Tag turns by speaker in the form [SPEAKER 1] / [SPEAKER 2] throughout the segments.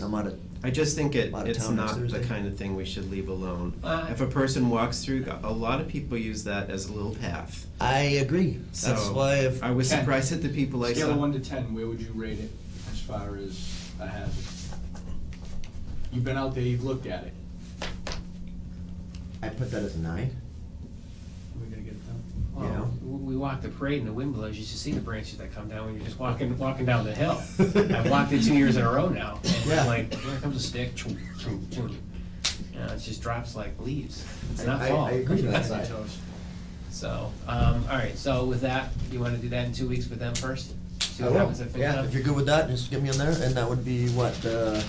[SPEAKER 1] I'm out of,
[SPEAKER 2] I just think it,
[SPEAKER 1] Lot of
[SPEAKER 2] it's
[SPEAKER 1] town eh? next
[SPEAKER 2] not the
[SPEAKER 1] Thursday.
[SPEAKER 2] kind of thing we should leave alone.
[SPEAKER 3] Uh,
[SPEAKER 2] If a person walks through, a lot of people use that as a little path.
[SPEAKER 1] I agree. That's
[SPEAKER 2] So,
[SPEAKER 1] why if,
[SPEAKER 2] I was
[SPEAKER 3] Okay.
[SPEAKER 2] surprised at the people I
[SPEAKER 3] Scale of
[SPEAKER 2] saw.
[SPEAKER 3] one to ten, where would you rate it as far as a hazard? You've been out there, you've looked at it.
[SPEAKER 1] I put that as a nine.
[SPEAKER 3] Are we gonna get it done?
[SPEAKER 1] You know?
[SPEAKER 4] Well, w- we walked the parade in the Wimbledon, you should see the branches that come down when you're just walking, walking down the hill. I've walked it two years in a row now, and
[SPEAKER 1] Yeah.
[SPEAKER 4] I'm like, here comes a stick, choom, choom, choom. You know, it just drops like leaves, it's
[SPEAKER 1] I-
[SPEAKER 4] not
[SPEAKER 1] I-
[SPEAKER 4] fall.
[SPEAKER 1] I agree with that side.
[SPEAKER 4] So, um, all right, so with that, you wanna do that in two weeks with them first? See
[SPEAKER 1] I
[SPEAKER 4] what
[SPEAKER 1] will.
[SPEAKER 4] happens at
[SPEAKER 1] Yeah,
[SPEAKER 4] FinCom?
[SPEAKER 1] if you're good with that, just get me on there, and that would be what, uh,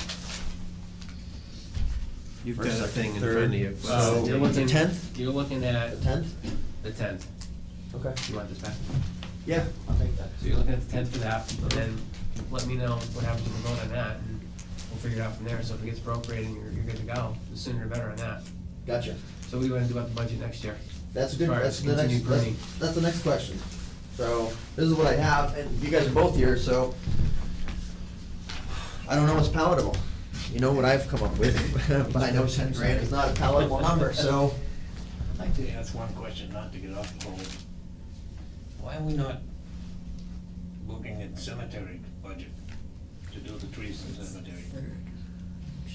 [SPEAKER 2] You've
[SPEAKER 1] first,
[SPEAKER 2] got a
[SPEAKER 1] second,
[SPEAKER 2] thing in
[SPEAKER 1] third.
[SPEAKER 2] front of you.
[SPEAKER 1] So,
[SPEAKER 4] You're
[SPEAKER 1] the
[SPEAKER 4] looking-
[SPEAKER 1] 10th?
[SPEAKER 4] You're looking
[SPEAKER 1] the
[SPEAKER 4] at
[SPEAKER 1] tenth?
[SPEAKER 4] the tenth,
[SPEAKER 1] Okay.
[SPEAKER 4] you want this back?
[SPEAKER 1] Yeah, I'll take that.
[SPEAKER 4] So you're looking at the tenth for that, and then let me know what happens with the vote on that, and we'll figure it out from there, so if it gets appropriated, you're, you're good to go, the sooner the better on that.
[SPEAKER 1] Gotcha.
[SPEAKER 4] So what do you wanna do about the budget next year?
[SPEAKER 1] That's a good,
[SPEAKER 4] Sorry,
[SPEAKER 1] that's the next,
[SPEAKER 4] continue
[SPEAKER 1] that's,
[SPEAKER 4] pruning.
[SPEAKER 1] that's the next question. So, this is what I have, and you guys are both here, so I don't know what's palatable. You know what I've come up with, but I know ten grand is not a palatable number, so.
[SPEAKER 5] I'd like to ask one question, not to get off the whole. Why are we not looking at cemetery budget to do the trees in cemetery?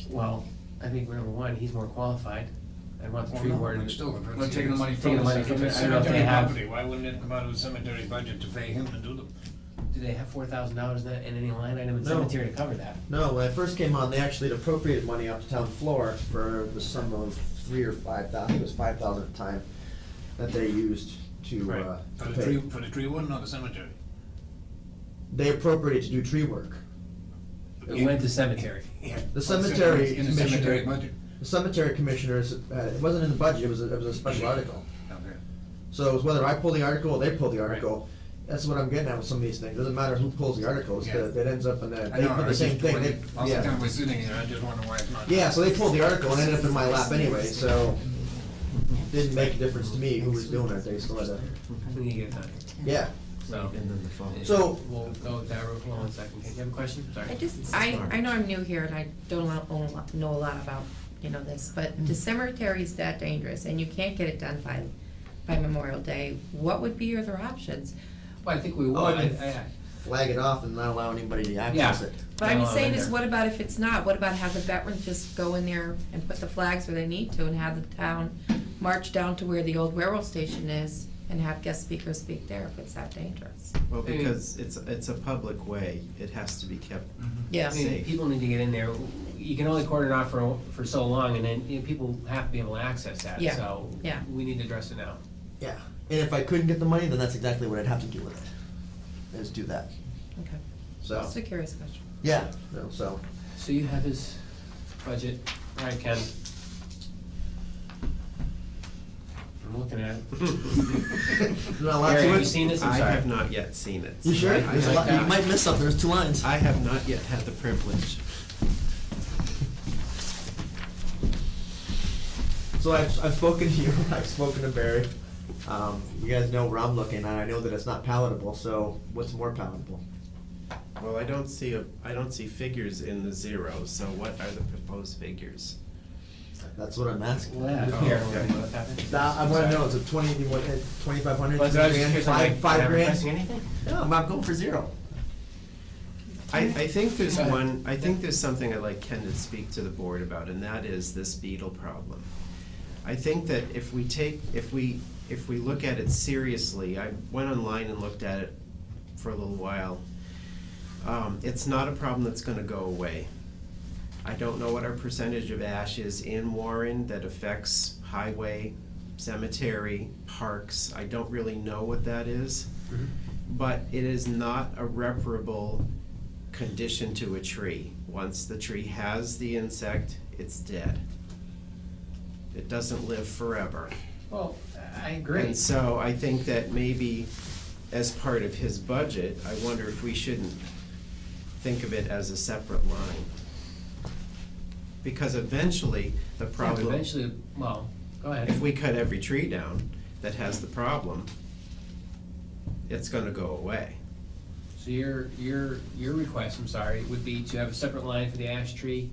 [SPEAKER 4] Well, I think number one, he's more qualified, I want the
[SPEAKER 5] Well,
[SPEAKER 4] tree
[SPEAKER 5] no,
[SPEAKER 4] warden.
[SPEAKER 5] but still, if it's-
[SPEAKER 3] We're taking the money
[SPEAKER 4] Taking
[SPEAKER 3] from
[SPEAKER 4] the
[SPEAKER 3] the
[SPEAKER 4] money from
[SPEAKER 3] cemetery.
[SPEAKER 4] it, I don't know if they
[SPEAKER 5] Cemetery
[SPEAKER 4] have,
[SPEAKER 5] property, why wouldn't it come out of the cemetery budget to pay him to do them?
[SPEAKER 4] do they have four thousand dollars in that, in any line item in
[SPEAKER 1] No.
[SPEAKER 4] cemetery to cover that?
[SPEAKER 1] No, when I first came on, they actually had appropriated money off the town floor for the sum of three or five thousand, it was five thousand at the time, that they used to, uh,
[SPEAKER 5] For
[SPEAKER 1] to
[SPEAKER 5] the tree,
[SPEAKER 1] pay.
[SPEAKER 5] for the tree warden or the cemetery?
[SPEAKER 1] They appropriated to do tree work.
[SPEAKER 4] It went to cemetery,
[SPEAKER 5] Yeah.
[SPEAKER 1] The cemetery
[SPEAKER 5] Oh, In the cemetery budget,
[SPEAKER 1] commissioner, the cemetery commissioners, uh, it wasn't in the budget, it was, a- it was a special article.
[SPEAKER 5] okay.
[SPEAKER 1] So it was whether I pull the article or they pull the article, that's what I'm getting at with some of these things, doesn't matter who pulls the articles,
[SPEAKER 5] Yeah.
[SPEAKER 1] it ends up in the,
[SPEAKER 5] I
[SPEAKER 1] they
[SPEAKER 5] know, I
[SPEAKER 1] put the
[SPEAKER 5] was
[SPEAKER 1] same
[SPEAKER 5] just-
[SPEAKER 1] thing,
[SPEAKER 5] when
[SPEAKER 1] they,
[SPEAKER 5] All the
[SPEAKER 1] yeah.
[SPEAKER 5] time we're sitting here, I just wonder why it's not.
[SPEAKER 1] Yeah, so they pulled the article and ended up in my lap anyway, so didn't make a difference to me who was doing it, they still had to,
[SPEAKER 4] we need to get it done,
[SPEAKER 1] yeah.
[SPEAKER 4] so.
[SPEAKER 2] And then the phone.
[SPEAKER 1] So-
[SPEAKER 4] We'll go with that, hold on one second, you have a question, sorry?
[SPEAKER 6] I just, I, I know I'm new here and I don't know, a lot- know a lot about, you know, this, but the cemetery is that dangerous and you can't get it done by, by Memorial Day. What would be your other options?
[SPEAKER 4] Well, I think we
[SPEAKER 1] Oh,
[SPEAKER 4] will,
[SPEAKER 1] I
[SPEAKER 4] I,
[SPEAKER 1] mean-
[SPEAKER 4] I,
[SPEAKER 1] flag it off and not allow anybody to access
[SPEAKER 4] Yeah.
[SPEAKER 1] it.
[SPEAKER 6] What I'm
[SPEAKER 4] Oh, in
[SPEAKER 6] saying is,
[SPEAKER 4] there.
[SPEAKER 6] what about if it's not? What about have the veterans just go in there and put the flags where they need to and have the town march down to where the old railroad station is and have guest speakers speak there if it's that dangerous?
[SPEAKER 2] Well, because it's, it's a public way, it has to be kept.
[SPEAKER 5] Mm-hmm.
[SPEAKER 4] I mean,
[SPEAKER 2] Safe.
[SPEAKER 4] people need to get in there. You can only cordon off for, for so long, and then, you know, people have to be able to access that,
[SPEAKER 6] Yeah,
[SPEAKER 4] so.
[SPEAKER 6] yeah.
[SPEAKER 4] We need to address it now.
[SPEAKER 1] Yeah, and if I couldn't get the money, then that's exactly what I'd have to do with it, is do that,
[SPEAKER 6] Okay,
[SPEAKER 1] so,
[SPEAKER 6] just a curious question.
[SPEAKER 1] yeah, no, so.
[SPEAKER 4] So you have his budget, all right, Ken? I'm looking at it.
[SPEAKER 1] Not a lot
[SPEAKER 4] Gary,
[SPEAKER 1] to
[SPEAKER 4] have you
[SPEAKER 1] it.
[SPEAKER 4] seen this? I'm
[SPEAKER 2] I
[SPEAKER 4] sorry.
[SPEAKER 2] have not yet seen it.
[SPEAKER 1] You sure?
[SPEAKER 2] I-
[SPEAKER 1] There's a lot- You might miss something, there's two lines.
[SPEAKER 2] I have not yet had the privilege.
[SPEAKER 1] So I've, I've spoken to you, I've spoken to Barry, um, you guys know where I'm looking, and I know that it's not palatable, so what's more palatable?
[SPEAKER 2] Well, I don't see, a I don't see figures in the zero, so what are the proposed figures?
[SPEAKER 1] That's what I'm asking.
[SPEAKER 4] Well, yeah,
[SPEAKER 2] Oh,
[SPEAKER 4] here,
[SPEAKER 2] okay.
[SPEAKER 4] what happened?
[SPEAKER 1] Now, I wanna know, is it twenty, you want, eh, twenty-five hundred,
[SPEAKER 4] Well, so I was just
[SPEAKER 1] grand,
[SPEAKER 4] curious, I'm
[SPEAKER 1] five,
[SPEAKER 4] like,
[SPEAKER 1] five
[SPEAKER 4] am I
[SPEAKER 1] grand?
[SPEAKER 4] pressing anything?
[SPEAKER 1] No, I'm not going for zero.
[SPEAKER 2] I, I think there's
[SPEAKER 4] Go ahead.
[SPEAKER 2] one, I think there's something I'd like Ken to speak to the board about, and that is this beetle problem. I think that if we take, if we, if we look at it seriously, I went online and looked at it for a little while. Um, it's not a problem that's gonna go away. I don't know what our percentage of ash is in Warren that affects highway, cemetery, parks. I don't really know what that is. But it is not a reparable condition to a tree. Once the tree has the insect, it's dead. It doesn't live forever.
[SPEAKER 4] Well, I agree.
[SPEAKER 2] And so I think that maybe as part of his budget, I wonder if we shouldn't think of it as a separate line. Because eventually, the
[SPEAKER 4] Yeah, but
[SPEAKER 2] problem.
[SPEAKER 4] Eventually, well, go ahead.
[SPEAKER 2] If we cut every tree down that has the problem, it's gonna go away.
[SPEAKER 4] So your, your, your request, I'm sorry, would be to have a separate line for the ash tree